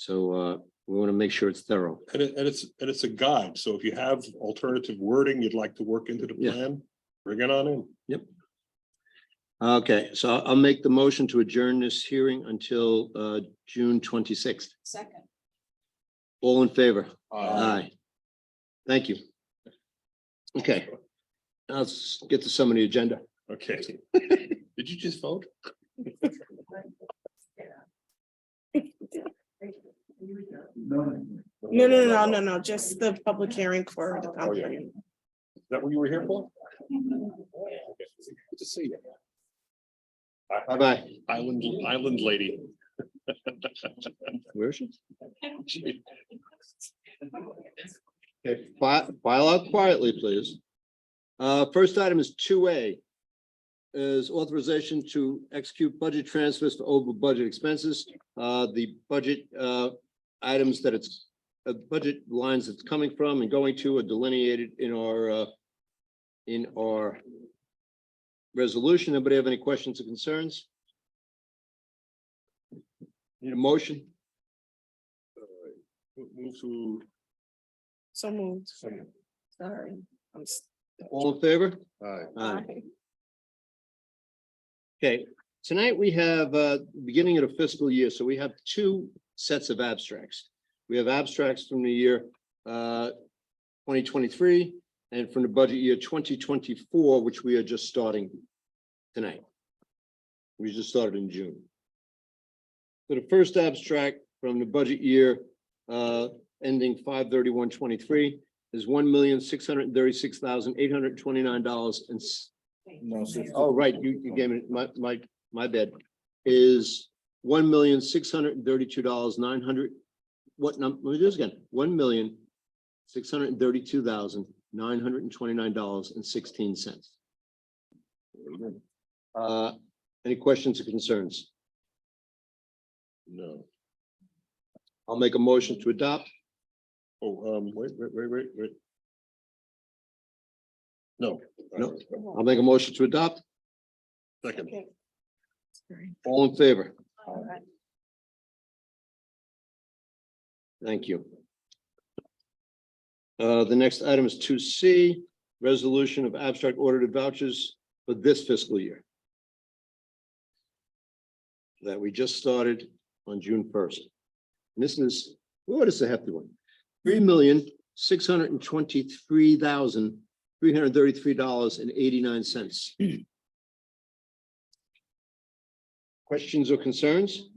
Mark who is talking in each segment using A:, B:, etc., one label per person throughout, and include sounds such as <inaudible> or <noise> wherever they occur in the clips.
A: So uh, we want to make sure it's thorough.
B: And it, and it's, and it's a guide, so if you have alternative wording you'd like to work into the
A: Yeah.
B: plan, bring it on in.
A: Okay, so I'll make the motion to adjourn this hearing until uh, June twenty-sixth.
C: Second.
A: All in favor?
B: Uh,
A: Thank you. Okay. Now Let's get to some of the agenda.
B: Uh,
D: <laughs>
B: Okay. Did you just vote?
D: No, no, no, no, no, just the public hearing for the
B: Oh, yeah.
D: company.
B: Is that what you were here for? Okay. Good to see you.
A: Bye-bye.
B: Island, island lady. <laughs>
A: Where is she? Okay, file, file out quietly, please. Uh, first item is two A. Is authorization to execute budget transfers for over budget expenses. Uh, the budget, uh, items that it's, uh, budget lines it's coming from and going to are delineated in our, uh, in our resolution. Anybody have any questions or concerns? Need a motion?
B: Move to.
D: So moved,
C: Sorry.
D: I'm s-
A: All in favor?
B: Aye.
D: Aye.
A: Okay, tonight we have uh beginning of the fiscal year, so we have two sets of abstracts. We have abstracts from the year uh twenty twenty-three and from the budget year twenty twenty-four, which we are just starting tonight. We just started in June. So the first abstract from the budget year uh ending 23 is one million, six hundred and thirty-six thousand, eight hundred and twenty-nine dollars and
C: No.
A: Oh, right, you, you gave it, my, my, my bad, is one million, six hundred and thirty-two dollars, nine hundred. What number, let me do this again, one million, six hundred and thirty-two thousand, nine hundred and twenty-nine dollars and sixteen cents. Uh, any questions or concerns?
B: No.
A: I'll make a motion to adopt.
B: Oh, um, wait, wait, wait, wait, wait. No.
A: No. I'll make a motion to adopt.
B: Second.
D: Sorry.
A: All in favor?
C: All right.
A: Thank you. Uh, the next item is two C, resolution of abstract audited vouchers for this fiscal year. That we just started on June first. This is, what is the hefty one? Three million, six hundred and twenty-three thousand, three hundred and thirty-three dollars and eighty-nine cents. Questions or concerns?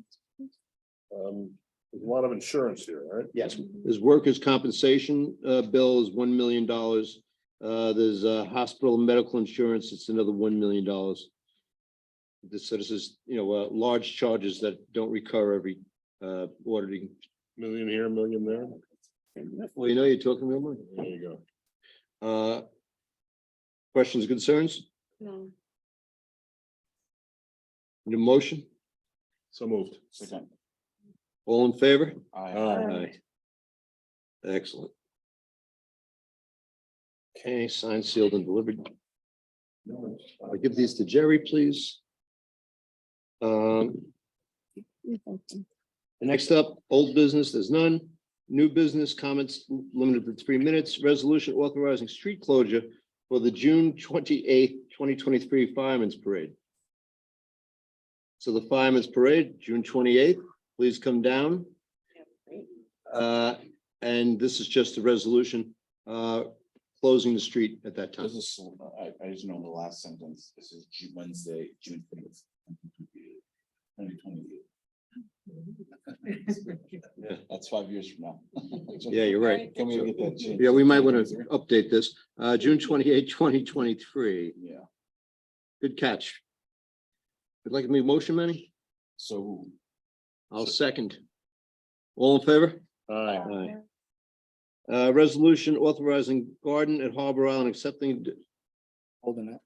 B: Um, there's a lot of insurance here, right?
A: Yes, there's workers' compensation uh bill is one million dollars. Uh, there's uh hospital and medical insurance, it's another one million dollars. This, so this is, you know, uh, large charges that don't recur every uh auditing.
B: Million here, million there.
A: Well, you know, you're talking real money.
B: There you go.
A: Uh. Questions, concerns,
D: No.
A: Need a motion,
B: So moved.
A: all in favor?
B: Aye.
A: Aye. Ah, Excellent. Okay, signed, sealed and delivered. I'll give these to Jerry, please. Um, next up, old business, there's none. New business comments limited to three minutes. Resolution authorizing street closure for the June twenty-eighth, twenty twenty-three Fireman's Parade. So the Fireman's Parade, June twenty-eighth, please come down. Uh, and this is just a resolution, uh, closing the street at that time.
E: This is, I, I just know the last sentence, this is Ju- Wednesday, June fifth. Twenty
A: Yeah.
E: twenty. That's five years from now.
A: Yeah, you're right.
E: Can we get that changed?
A: Yeah, we might want to update this. Uh, June 28, 2023.
E: Yeah,
A: Good catch. Would like me to motion, Manny?
E: so
A: I'll second. All in favor?
B: Aye.
A: Aye. Uh, resolution authorizing garden at Harbor Island accepting,
E: holding it.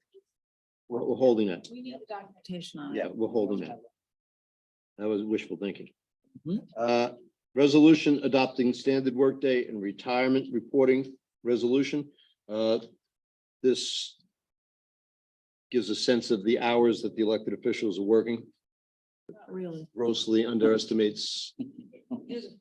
A: we're, we're holding that.
C: We need the documentation on it.
A: Yeah, we're holding that. That was wishful thinking.
E: Mhm.
A: Uh, resolution adopting standard workday and retirement reporting resolution. Uh, this gives a sense of the hours that the elected officials are working,
C: Really.
A: grossly underestimates